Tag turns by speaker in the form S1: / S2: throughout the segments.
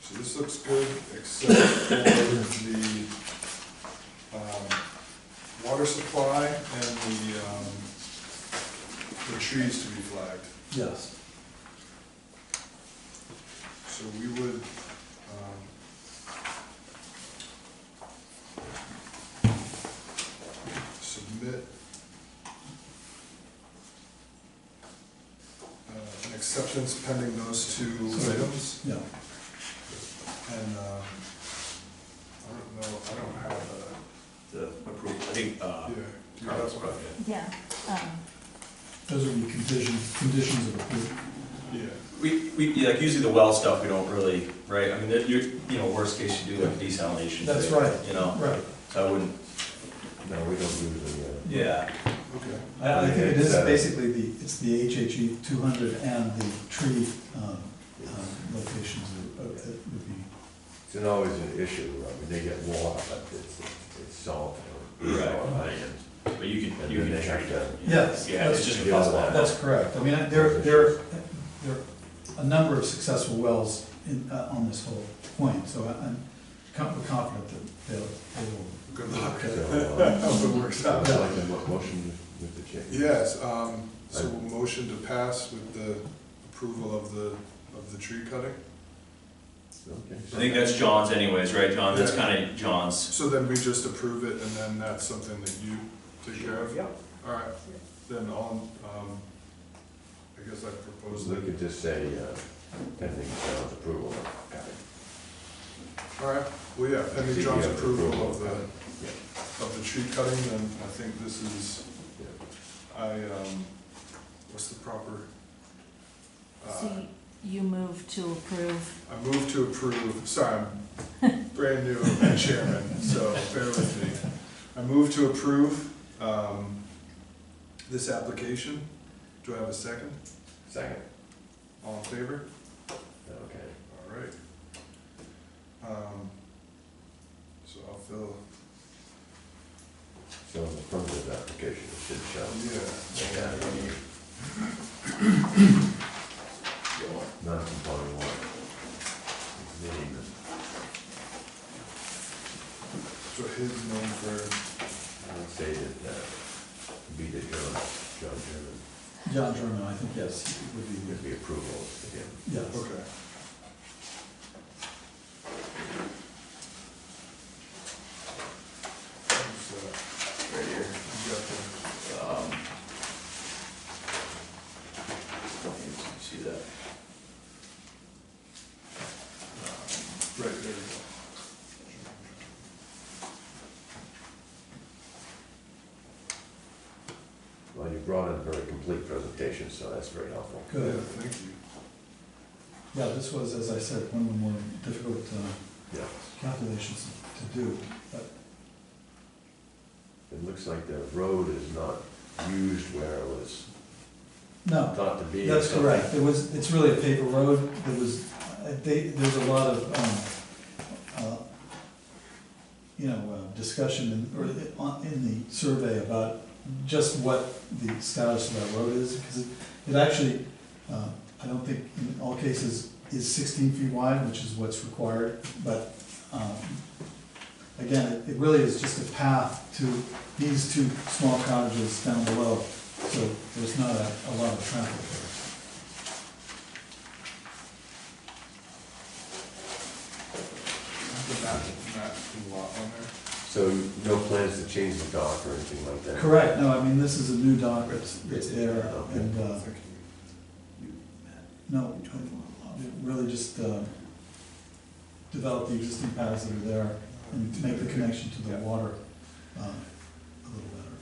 S1: So this looks good, except for the, um, water supply and the, um, the trees to be flagged.
S2: Yes.
S1: So we would, um, submit uh, an acceptance pending those two items,
S2: Yeah,
S1: and, um, I don't know, I don't have a,
S3: The approval, I think, uh,
S1: yeah. do you
S3: Carlos
S1: have one?
S3: brought it.
S4: Yeah, um,
S2: those would be conditions, conditions of approval.
S1: Yeah,
S3: We, we, yeah, like usually the well stuff, we don't really, right, I mean, that you're, you know, worst case, you do like a desalination.
S2: That's
S3: thing,
S2: right.
S3: You know,
S2: Right.
S3: so I wouldn't,
S5: No, we don't usually, uh,
S3: yeah,
S1: okay.
S2: I, I think it is basically the, it's the HHE two hundred and the tree, um, um, locations that uh, that would be.
S5: it's an- always an issue, I mean, they get water, but it's, it's salt or
S3: Right.
S5: iron.
S3: but you can,
S5: And
S3: you
S5: then
S3: can
S5: they have
S3: treat
S5: to-
S3: that.
S2: Yes,
S3: Yeah, it's
S2: that's-
S3: just a
S5: yeah,
S3: puzzle.
S5: that-
S2: That's correct. I mean, I- there, there, there are a number of successful wells in, uh, on this whole point, so I- I'm com- confident that they'll, they will.
S1: Good luck.
S5: So,
S1: I
S5: uh,
S1: hope it works
S5: so
S1: out.
S5: it's like a mo- motion with the change.
S1: Yes, um, so we'll motion to pass with the approval of the, of the tree cutting.
S5: Okay.
S3: I think that's John's anyways, right, John, that's
S1: Yeah.
S3: kinda John's.
S1: So then we just approve it, and then that's something that you take care of?
S3: Yeah.
S1: All right, then on, um, I guess I propose
S5: We
S1: that,
S5: could just say, uh, pending John's approval of cutting.
S1: all right, well, yeah, pending John's
S5: Yeah,
S1: approval of the,
S5: cutting.
S1: of the tree cutting, then I think this is,
S5: Yeah.
S1: I, um, what's the proper?
S4: so
S1: Uh,
S4: y- you move to approve,
S1: I move to approve, sorry, I'm brand new chairman, so bear with me. I move to approve, um, this application. Do I have a second?
S5: Second,
S1: All in favor?
S5: okay.
S1: All right. Um, So I'll fill,
S5: So in the front of the application, it should show.
S1: yeah.
S5: Non-conforming water. Name
S1: So his name for,
S5: and- I would say that, uh, be the John, John German,
S2: John German, I think, yes, would be,
S5: would be approval of him.
S2: yes.
S1: okay. Who's that?
S3: Right here.
S1: You got the-
S3: Um, Don't need to see that. Um,
S1: Right, there you go.
S5: Well, you brought in a very complete presentation, so that's very helpful.
S1: Yeah,
S2: Good.
S1: thank you.
S2: Yeah, this was, as I said, one of the more difficult uh,
S5: Yeah,
S2: calculations to do, but
S5: it looks like the road is not used where it was
S2: no,
S5: thought to be. or
S2: that's
S5: something.
S2: correct. It was, it's really a paper road. There was, uh, they, there's a lot of, um, uh, you know, uh, discussion in, or the- on- in the survey about just what the status of that road is, because it, it actually, uh, I don't think in all cases is sixteen feet wide, which is what's required, but, um, again, it- it really is just a path to these two small cottages down below, so there's not a, a lot of traffic
S1: The map, map and lot on there.
S5: So no plans to change the dock or anything like that?
S2: there. Correct, no, I mean, this is a new dock that's, that's there, and, uh,
S1: Thank you.
S2: no, it really just, uh, develop the existing paths that are there and make the connection to the water, uh, a little better.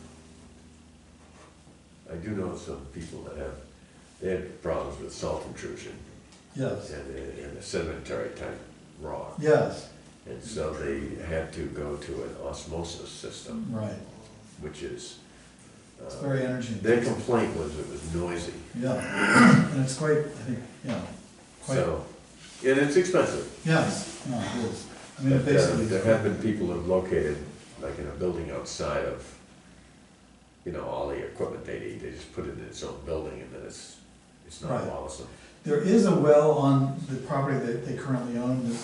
S5: I do know some people that have, they had problems with salt intrusion
S2: Yes,
S5: and, a- and a sedimentary type rock.
S2: yes,
S5: And so they had to go to an osmosis system,
S2: right,
S5: which is,
S2: it's
S5: uh,
S2: very energy
S5: their
S2: intensive.
S5: complaint was it was noisy.
S2: Yeah, and it's quite, I think, yeah, quite,
S5: So, and it's expensive.
S2: yes, no, it is. I mean, it
S5: But, uh,
S2: basically.
S5: There have been people who've located, like in a building outside of, you know, all the equipment they need, they just put it in its own building and then it's, it's not
S2: Right.
S5: bothersome.
S2: There is a well on the property that they currently own, that's